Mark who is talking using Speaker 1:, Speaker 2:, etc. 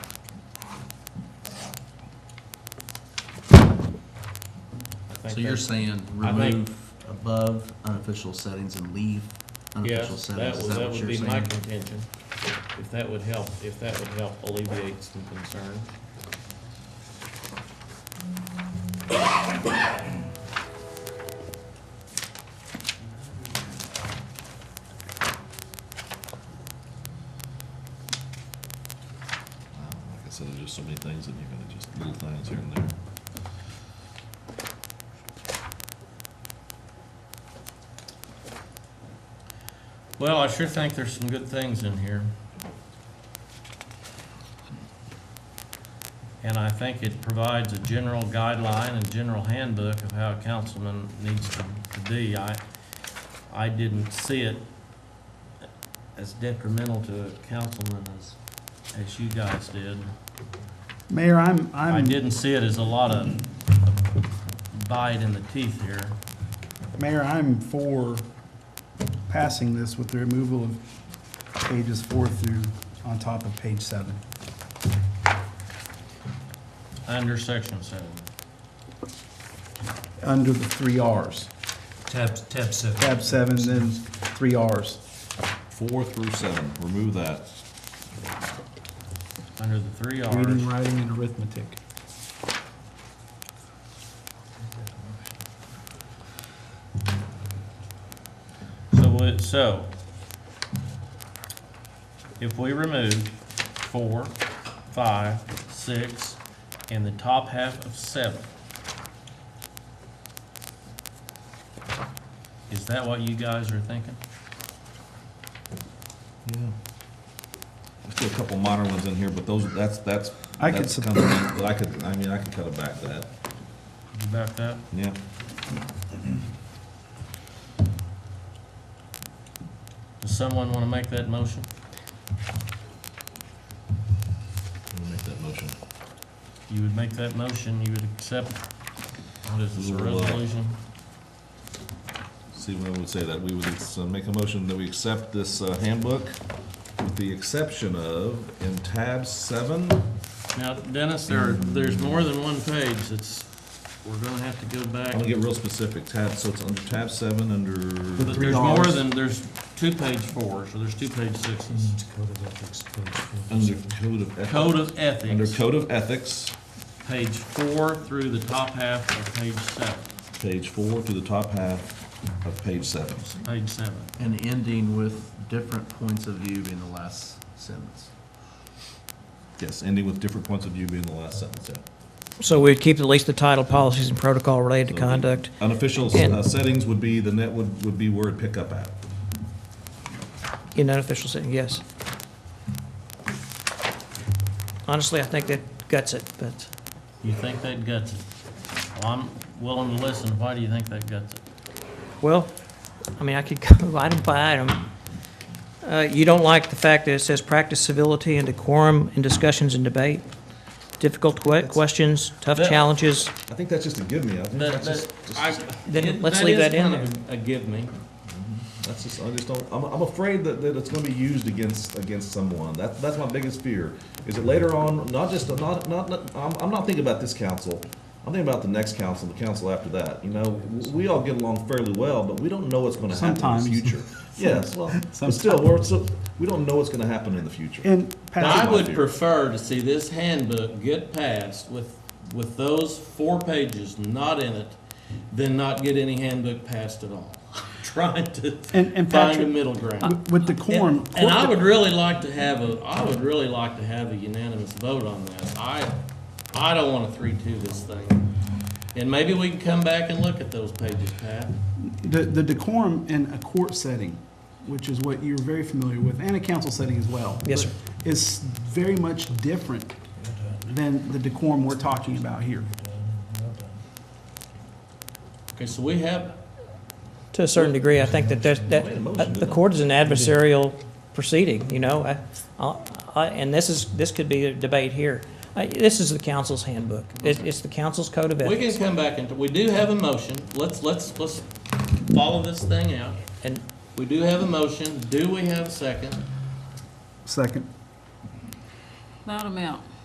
Speaker 1: think
Speaker 2: So you're
Speaker 1: that-
Speaker 2: saying
Speaker 1: I think-
Speaker 2: remove above unofficial settings and leave
Speaker 1: Yeah,
Speaker 2: unofficial
Speaker 1: that
Speaker 2: settings, is
Speaker 1: would,
Speaker 2: that
Speaker 1: that
Speaker 2: what
Speaker 1: would
Speaker 2: you're
Speaker 1: be my
Speaker 2: saying?
Speaker 1: contention. If that would help, if that would help alleviate some concern.
Speaker 3: Like I said, there's just so many things and you gotta just little things here and there.
Speaker 1: Well, I sure think there's some good things in here. And I think it provides a general guideline and general handbook of how a councilman needs to to be. I, I didn't see it as detrimental to a councilman as, as you guys did.
Speaker 4: Mayor, I'm,
Speaker 1: I
Speaker 4: I'm,
Speaker 1: didn't see it as a lot of bite in the teeth here.
Speaker 4: Mayor, I'm for passing this with the removal of pages four through on top of page seven.
Speaker 1: Under section seven.
Speaker 4: Under the three Rs.
Speaker 5: Tab, tab seven.
Speaker 4: Tab seven, then three Rs.
Speaker 3: Four through seven, remove that.
Speaker 1: Under the three Rs.
Speaker 4: Reading, writing, and arithmetic.
Speaker 1: So, what- so, if we remove four, five, six, and the top half of seven, is that what you guys are thinking?
Speaker 3: Yeah. There's still a couple modern ones in here, but those, that's, that's.
Speaker 4: I could
Speaker 3: that's
Speaker 4: sup-
Speaker 3: kind of- But I could, I mean, I could cut it back to that,
Speaker 1: Did you back that?
Speaker 3: yeah.
Speaker 1: Does someone wanna make that motion?
Speaker 3: Let me make that motion.
Speaker 1: You would make that motion, you would accept, what is this, a
Speaker 3: Rule, uh,
Speaker 1: resolution?
Speaker 3: See, what I would say that, we would uh, make a motion that we accept this uh, handbook with the exception of in tab seven.
Speaker 1: Now, Dennis, there, there's more than one page, it's, we're gonna have to go back.
Speaker 3: I'm gonna get real specific, tab, so it's under tab seven, under,
Speaker 1: But
Speaker 4: three
Speaker 1: there's more
Speaker 4: Rs.
Speaker 1: than, there's two page fours, or there's two page sixes.
Speaker 5: It's coded up, it's coded up.
Speaker 3: under code of
Speaker 1: Code
Speaker 3: ethics.
Speaker 1: of
Speaker 3: Mm-hmm. Under
Speaker 1: Ethics,
Speaker 3: code of ethics,
Speaker 1: page four through the top half of page seven,
Speaker 3: page four to the top half of page seven.
Speaker 1: page seven.
Speaker 2: And ending with different points of view in the last sentence.
Speaker 3: Yes, ending with different points of view being the last sentence, yeah.
Speaker 6: So we'd keep at least the title, policies, and protocol related to conduct.
Speaker 3: Unofficial uh,
Speaker 6: And-
Speaker 3: settings would be, the net would, would be word pickup app.
Speaker 6: In unofficial setting, yes. Honestly, I think that guts it, but
Speaker 1: You think that guts it? Well, I'm willing to listen, why do you think that guts it?
Speaker 6: Well, I mean, I could go item by item. Uh, You don't like the fact that it says practice civility and decorum in discussions and debate, difficult que- questions, tough
Speaker 1: That-
Speaker 6: challenges.
Speaker 3: I think that's just a give me, I think
Speaker 1: That,
Speaker 3: that's
Speaker 1: that,
Speaker 3: just,
Speaker 1: I.
Speaker 6: Then
Speaker 1: it-
Speaker 6: let's
Speaker 1: is
Speaker 6: leave that in
Speaker 1: kind of A give me.
Speaker 3: that's just, I just don't, I'm, I'm afraid that, that it's gonna be used against, against someone. That, that's my biggest fear, is that later on, not just, not, not, not- I'm, I'm not thinking about this council. I'm thinking about the next council, the council after that, you know, w- we all get along fairly well, but we don't know what's gonna happen in
Speaker 4: Sometimes.
Speaker 3: the future. Yes, well, but still, we're, so, we don't know what's gonna happen in the future.
Speaker 4: And
Speaker 1: I
Speaker 4: Patrick,
Speaker 1: would prefer to see this handbook get passed with, with those four pages not in it than not get any handbook passed at all. Trying to
Speaker 4: And- and
Speaker 1: find a
Speaker 4: Patrick- uh,
Speaker 1: middle ground.
Speaker 4: with- with decorum.
Speaker 1: And I would really like to have a, I would really like to have a unanimous vote on this. I, I don't wanna three-two this thing. And maybe we can come back and look at those pages, Pat.
Speaker 4: The, the decorum in a court setting, which is what you're very familiar with, and a council setting as well.
Speaker 6: Yes, sir.
Speaker 4: but Is very much different than the decorum we're talking about here.
Speaker 1: Okay, so we have,
Speaker 6: To a certain degree, I think that there's,
Speaker 3: Made a motion,
Speaker 6: that, the
Speaker 3: didn't I?
Speaker 6: court is an adversarial proceeding, you know? I- I- I- And this is, this could be a debate here. I- This is the council's handbook. It- It's the council's code of
Speaker 1: we
Speaker 6: ethics.
Speaker 1: can come back and, we do have a motion. Let's, let's, let's follow this thing out.
Speaker 6: And
Speaker 1: We do have a motion. Do we have a second?
Speaker 4: Second.
Speaker 7: Loud amount.